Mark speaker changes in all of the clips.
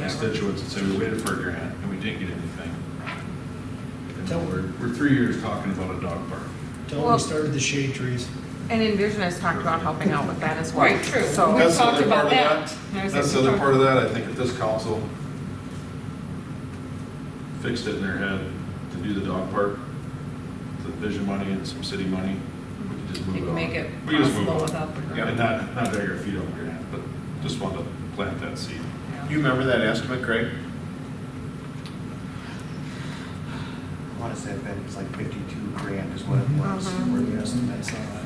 Speaker 1: constituents and say, we waited for a grant and we didn't get anything. And
Speaker 2: Tell-
Speaker 1: we're, we're three years talking about a dog park.
Speaker 2: Tell them
Speaker 3: Well-
Speaker 2: we started the shade trees.
Speaker 3: And Envision has talked about helping out with that as well.
Speaker 4: Right, true.
Speaker 3: So,
Speaker 4: We-
Speaker 1: That's the
Speaker 4: talked
Speaker 1: other part
Speaker 4: about
Speaker 1: of
Speaker 4: that. There's
Speaker 1: That's
Speaker 4: a-
Speaker 1: the other part of that, I think if this council fixed it in their head to do the dog park, the vision money and some city money, we could just
Speaker 4: You
Speaker 1: move it
Speaker 4: can
Speaker 1: on.
Speaker 4: make it
Speaker 1: We just move
Speaker 4: possible
Speaker 1: on.
Speaker 4: without the grant.
Speaker 1: And not, not beg our feet on grant, but just want to plant that seed.
Speaker 5: You remember that estimate, Craig?
Speaker 2: I want to say that it's like fifty-two grand is what it was,
Speaker 3: Mhm.
Speaker 2: were the estimates on that.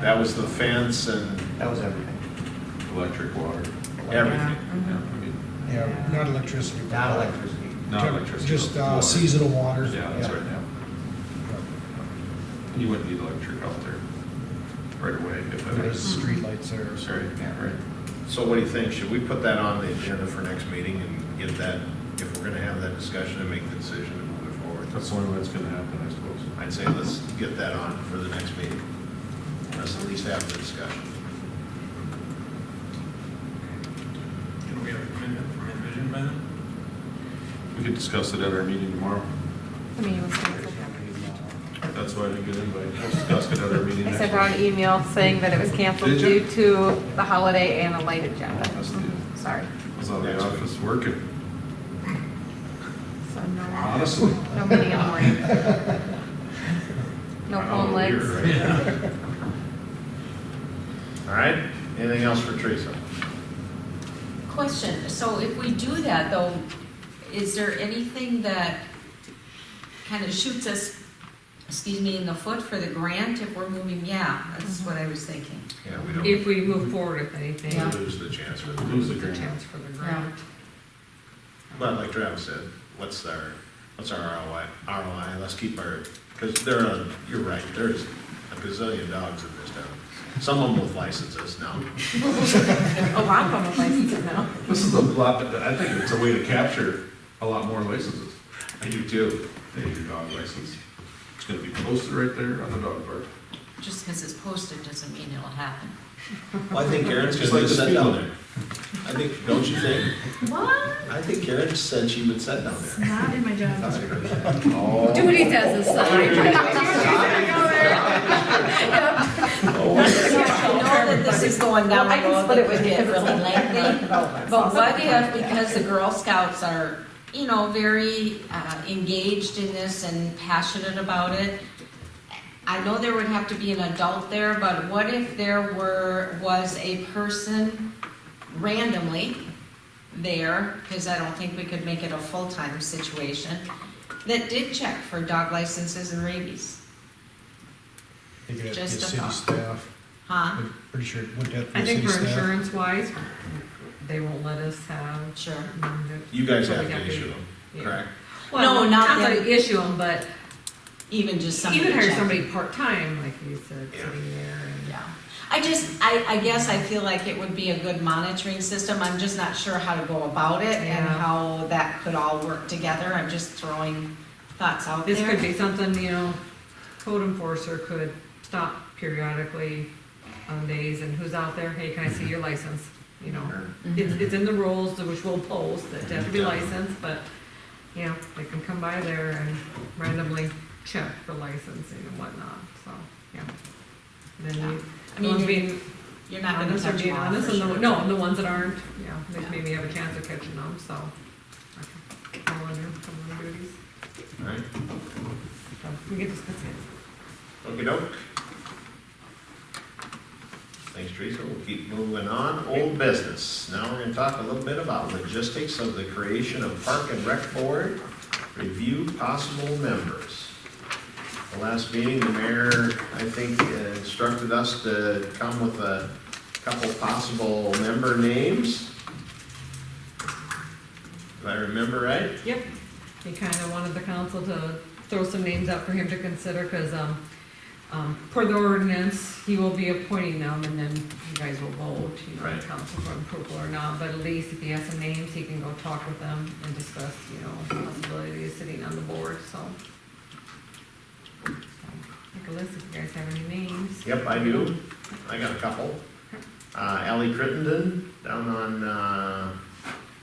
Speaker 5: That was the fence and
Speaker 2: That was everything.
Speaker 1: Electric, water.
Speaker 5: everything.
Speaker 4: Mm-hmm.
Speaker 1: Yeah,
Speaker 3: mm-hmm.
Speaker 1: I mean,
Speaker 2: Yeah,
Speaker 4: not
Speaker 2: electricity. Not electricity.
Speaker 1: Not electricity.
Speaker 2: Just, uh,
Speaker 1: water.
Speaker 2: seasonal water.
Speaker 1: Yeah, that's
Speaker 2: Yeah.
Speaker 1: right now. You wouldn't need electric out there right away if that was.
Speaker 2: streetlights there.
Speaker 1: Sorry, right.
Speaker 5: So what do you think? Should we put that on the agenda for next meeting and get that, if we're gonna have that discussion and make the decision to move it forward?
Speaker 1: That's the only way it's gonna happen, I suppose.
Speaker 5: I'd say let's get that on for the next meeting. Let's at least have the discussion.
Speaker 6: Can we have a commitment from Envision by then?
Speaker 1: We could discuss it at our meeting tomorrow.
Speaker 3: I mean, it was canceled.
Speaker 2: uh,
Speaker 1: That's why I didn't get invited. We'll discuss it at our meeting
Speaker 3: I
Speaker 1: next
Speaker 3: sent out an
Speaker 1: week.
Speaker 3: email saying that it was canceled
Speaker 1: Did you?
Speaker 3: due to the holiday and a light agenda.
Speaker 1: That's the-
Speaker 3: Mhm, Sorry.
Speaker 1: Was out of the office working,
Speaker 3: So no,
Speaker 1: honestly.
Speaker 3: no meeting in the morning. No
Speaker 5: Oh,
Speaker 1: I know,
Speaker 3: phone
Speaker 1: weird,
Speaker 3: legs.
Speaker 1: right?
Speaker 5: All right? Anything else for Teresa?
Speaker 7: Question, so if we do that though, is there anything that kind of shoots us, excuse me, in the foot for the grant if we're moving? Yeah, that's what I was thinking.
Speaker 5: Yeah, we don't
Speaker 4: If we move forward with anything,
Speaker 7: Yeah.
Speaker 5: lose the chance for
Speaker 1: Lose the
Speaker 5: the,
Speaker 4: the
Speaker 1: grant.
Speaker 4: chance for the grant.
Speaker 5: but like Travis said, what's our, what's our ROI? ROI, let's keep our, because there are, you're right, there's a gazillion dogs in this town. Some of them with licenses now.
Speaker 3: A lot of them have licenses now.
Speaker 1: This is a lot, I think it's a way to capture a lot more licenses.
Speaker 5: I do too.
Speaker 1: Hey, your dog license. It's gonna be posted right there on the dog park.
Speaker 7: Just because it's posted doesn't mean it'll happen.
Speaker 5: Well, I think Karen's
Speaker 1: Just
Speaker 5: gonna
Speaker 1: like the
Speaker 5: set
Speaker 1: field.
Speaker 5: down there. I think, don't you think?
Speaker 7: What?
Speaker 5: I think Karen said she would set down there.
Speaker 4: Not in my job.
Speaker 5: Oh.
Speaker 4: Duty does aside.
Speaker 7: So I know that this is going down
Speaker 3: Well, I
Speaker 7: the
Speaker 3: can
Speaker 7: road
Speaker 3: split it
Speaker 7: that
Speaker 3: with
Speaker 7: could
Speaker 3: you
Speaker 7: get
Speaker 3: because
Speaker 7: really
Speaker 3: it's like
Speaker 7: lengthy.
Speaker 3: development.
Speaker 7: But what if, because the Girl Scouts are, you know, very uh, engaged in this and passionate about it, I know there would have to be an adult there, but what if there were, was a person randomly there, because I don't think we could make it a full-time situation, that did check for dog licenses and rabies,
Speaker 2: They could have to be
Speaker 7: Just a
Speaker 2: city
Speaker 7: thought.
Speaker 2: staff.
Speaker 7: huh?
Speaker 2: I'm pretty sure, it would have to
Speaker 4: I
Speaker 2: be
Speaker 4: think
Speaker 2: city
Speaker 4: for
Speaker 2: staff.
Speaker 4: insurance wise, they won't let us have.
Speaker 7: Sure.
Speaker 5: You guys
Speaker 4: So we
Speaker 5: have
Speaker 4: got
Speaker 5: to
Speaker 4: the-
Speaker 5: issue them,
Speaker 4: yeah.
Speaker 5: correct?
Speaker 4: Well,
Speaker 7: No, not
Speaker 4: not
Speaker 7: them.
Speaker 4: to issue them, but
Speaker 7: Even just somebody
Speaker 4: even hire
Speaker 7: checking.
Speaker 4: somebody part-time, like you said,
Speaker 5: Yeah.
Speaker 4: sitting there and.
Speaker 7: Yeah, I just, I, I guess I feel like it would be a good monitoring system, I'm just not sure how to go about it and
Speaker 4: Yeah.
Speaker 7: how that could all work together, I'm just throwing thoughts out there.
Speaker 4: This could be something, you know, code enforcer could stop periodically on days and who's out there, hey, can I see your license? You know, it's,
Speaker 7: Mm-hmm.
Speaker 4: it's in the rules, which we'll post, that you have to be licensed, but, you know, they can come by there and randomly check for licensing and whatnot, so, yeah.
Speaker 7: Yeah.
Speaker 4: Then
Speaker 7: I
Speaker 4: you,
Speaker 7: mean,
Speaker 4: ones
Speaker 7: you're-
Speaker 4: being
Speaker 7: You're not gonna
Speaker 4: honest are
Speaker 7: touch
Speaker 4: being
Speaker 7: them all
Speaker 4: honest,
Speaker 7: for
Speaker 4: and the,
Speaker 7: sure.
Speaker 4: no, and the ones that aren't, you know, they
Speaker 7: Yeah.
Speaker 4: maybe have a chance of catching them, so. okay. Come on in, come on duties,
Speaker 5: All right.
Speaker 4: so we can discuss it.
Speaker 5: Okey doke. Thanks, Teresa. We'll keep moving on. Old business. Now we're gonna talk a little bit about logistics of the creation of Park and Rec Board. Review possible members. The last meeting, the mayor, I think, uh, instructed us to come with a couple possible member names. If I remember right?
Speaker 4: Yep, he kind of wanted the council to throw some names out for him to consider, because, um, um, per the ordinance, he will be appointing them, and then you guys will vote, you know,
Speaker 5: Right.
Speaker 4: the council for approval or not, but at least if he has some names, he can go talk with them and discuss, you know, possibilities of sitting on the board, so. So, Take a list if you guys have any names.
Speaker 5: Yep, I do. I got a couple. Uh, Ally Crittenden down on, uh,